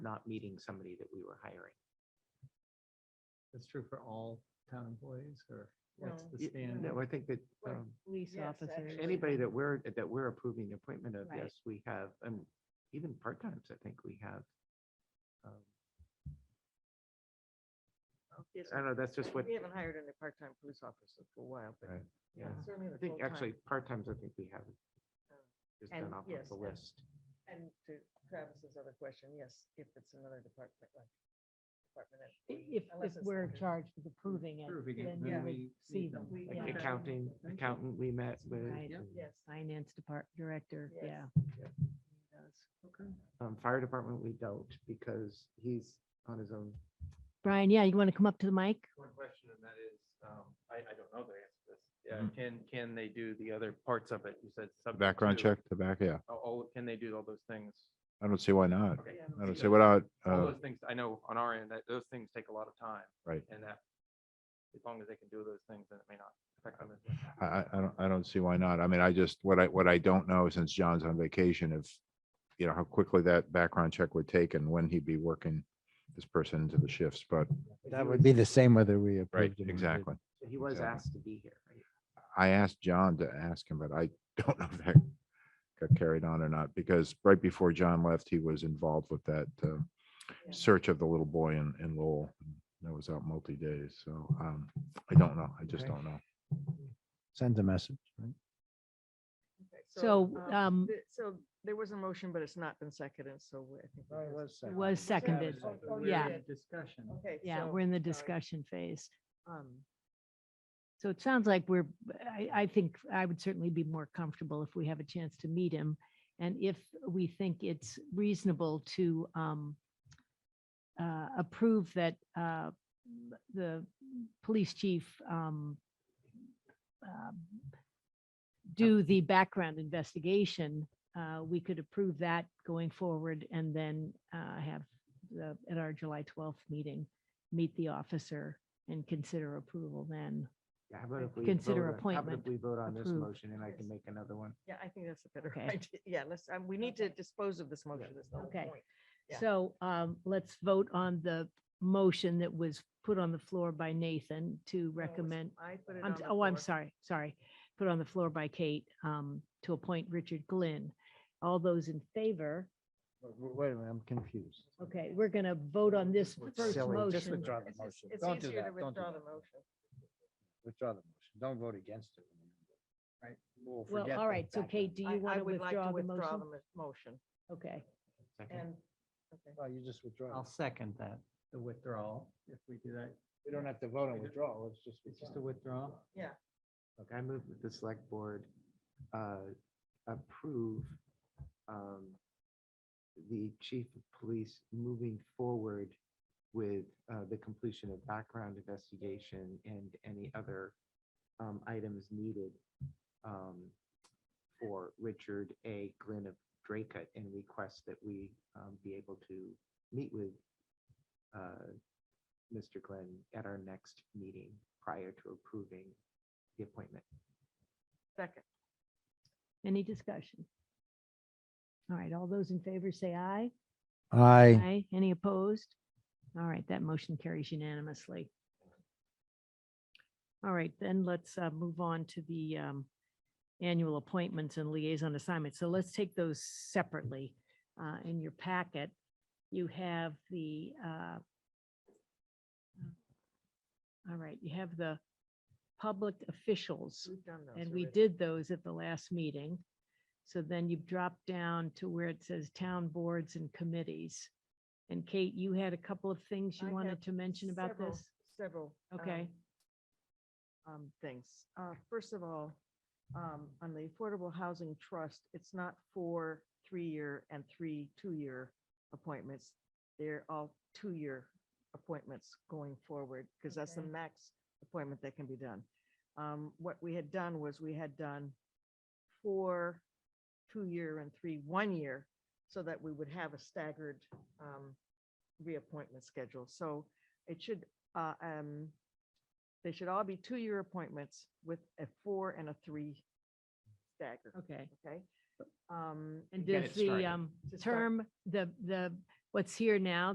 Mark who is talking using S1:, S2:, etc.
S1: not meeting somebody that we were hiring.
S2: That's true for all town employees or what's
S3: No.
S2: the
S1: Y-
S2: standard?
S1: No, I think that
S3: Or
S1: um,
S3: Police
S4: Yes,
S3: officers.
S4: actually.
S1: anybody that we're, that we're approving the appointment of,
S3: Right.
S1: yes, we have, and even part-times, I think we have. um,
S4: Yes,
S1: I don't know, that's just what,
S4: We haven't hired any part-time police officers for a while, but
S2: Right.
S1: yeah,
S4: certainly
S1: I
S4: the
S1: think
S4: full-time.
S1: actually, part-times, I think we have. Just
S4: And
S1: done off
S4: yes,
S1: of the
S4: and-
S1: list.
S4: And to Travis's other question, yes, if it's another department, like department. head,
S3: I- If, if
S4: unless it's
S3: we're
S4: under-
S3: charged with approving it,
S2: Approving it, then
S3: then we
S2: we
S3: would
S2: need
S3: see
S2: them.
S3: them.
S4: We-
S1: Like
S3: Yeah.
S4: yeah.
S1: accounting,
S4: Mm-hmm.
S2: Thank you.
S1: accounting we met with,
S3: Right.
S1: and,
S4: Yes.
S3: Finance depart, director,
S4: Yes.
S3: yeah.
S4: he does.
S2: Okay.
S1: um, fire department, we don't, because he's on his own.
S3: Brian, yeah, you want to come up to the mic?
S5: One question, and that is, um, I, I don't know the answer to this. Yeah, can, can they do the other parts of it? You said. subject
S6: Background
S5: to-
S6: check, the back, yeah.
S5: Oh, All, can they do all those things?
S6: I don't see why not.
S5: Okay.
S4: Yeah.
S6: I don't see
S5: Because
S6: without,
S5: All
S6: uh,
S5: those things, I know on our end, that those things take a lot of time.
S6: Right.
S5: And that, as long as they can do those things, then it may not affect them. as much.
S6: I, I, I don't, I don't see why not. I mean, I just, what I, what I don't know, since John's on vacation, if, you know, how quickly that background check would take and when he'd be working this person into the shifts, but,
S1: That
S7: Would be the same whether we
S6: right,
S7: approved it. or not.
S6: exactly.
S1: He was
S6: Exactly.
S1: asked to be here. right?
S6: I asked John to ask him, but I don't know if that got carried on or not, because right before John left, he was involved with that, uh,
S4: Yeah.
S6: search of the little boy in, in Lowell. That was out multi-days, so, um, I don't know. I just
S1: Okay.
S6: don't know.
S7: Send a message, right?
S4: Okay,
S3: So, um,
S4: th- So there was a motion, but it's not been seconded, so we- I think.
S1: Oh,
S4: we have-
S3: it was seconded.
S4: Oh, oh,
S2: We're
S3: yeah.
S2: in Discussion.
S4: Okay.
S3: Yeah,
S4: so,
S3: we're in the
S4: sorry.
S3: discussion phase.
S4: Um,
S3: So it sounds like we're, I, I think I would certainly be more comfortable if we have a chance to meet him. And if we think it's reasonable to um, uh, approve that uh, the police chief um, um, do the background investigation, uh, we could approve that going forward and then uh, have the, at our July 12th meeting, meet the officer and consider approval then.
S1: Yeah, how about if we
S3: Consider
S1: vote on- how about
S3: appointment
S1: if We vote on this
S3: approved.
S1: motion and I can make another one.
S4: Yeah, I think that's a better
S3: Okay.
S4: idea. Yeah, let's, um, we need to dispose of this motion. That's the whole
S3: Okay.
S4: point. Yeah.
S3: So um, let's vote on the motion that was put on the floor by Nathan to
S4: No, it's-
S3: recommend.
S4: I put it
S3: I'm,
S4: on the
S3: oh, I'm
S4: floor.
S3: sorry, sorry. Put on the floor by Kate um, to appoint Richard Glynn. All those in favor?
S7: Wait- Wait a minute, I'm confused.
S3: Okay, we're going to vote on this
S7: What's
S3: first
S7: silly, just
S3: motion.
S7: withdraw the
S4: It's just-
S7: motion.
S4: It's
S7: Don't do
S4: easier to
S7: that, don't do
S4: withdraw the
S7: that.
S4: motion.
S7: Withdraw the motion. Don't vote against it. Right? We'll
S3: Well,
S7: forget
S3: all
S7: the
S3: right, so
S7: background.
S3: Kate, do
S4: I-
S3: you want
S4: I
S3: to
S4: would like
S3: withdraw the
S4: withdraw
S3: motion?
S4: the mo- Motion
S3: Okay,
S1: Second.
S4: and. okay.
S7: Oh, you just withdraw.
S2: I'll second that, the withdrawal, if we do that.
S7: We don't have to vote on withdrawal, it's just.
S2: It's just a withdrawal.
S4: Yeah.
S1: Okay, I move that the select board uh, approve um, the chief of police moving forward with uh, the completion of background investigation and any other um, items needed um, for Richard A. Glenn of Dracut and request that we um, be able to meet with uh, Mr. Glenn at our next meeting prior to approving the appointment.
S4: Second.
S3: any discussion? All right, all those in favor say aye.
S7: I,
S3: Aye. Any opposed? All right, that motion carries unanimously. All right, then let's uh, move on to the um, annual appointments and liaison assignments. So let's take those separately. Uh, In your packet, you have the, uh, all right, you have the public officials.
S4: We've done those
S3: And we
S4: already.
S3: did those at the last meeting. So then you drop down to where it says town boards and committees. And Kate, you had a couple of things you
S4: I
S3: wanted
S4: had
S3: to mention about
S4: several-
S3: this?
S4: Several.
S3: Okay.
S4: um, Um, things. Uh, first of all, um, on the Affordable Housing Trust, it's not four three-year and three two-year appointments. They're all two-year appointments going forward because that's the
S3: Okay.
S4: max appointment that can be done. Um, what we had done was we had done four two-year and three one-year so that we would have a staggered, um, reappointment schedule. So it should, uh, um, they should all be two-year appointments with a four and a three stagger,
S3: Okay.
S4: okay? Um,
S3: And
S1: get
S3: does
S1: it
S3: the
S1: started.
S3: um,
S4: To start-
S3: term, the, the what's here now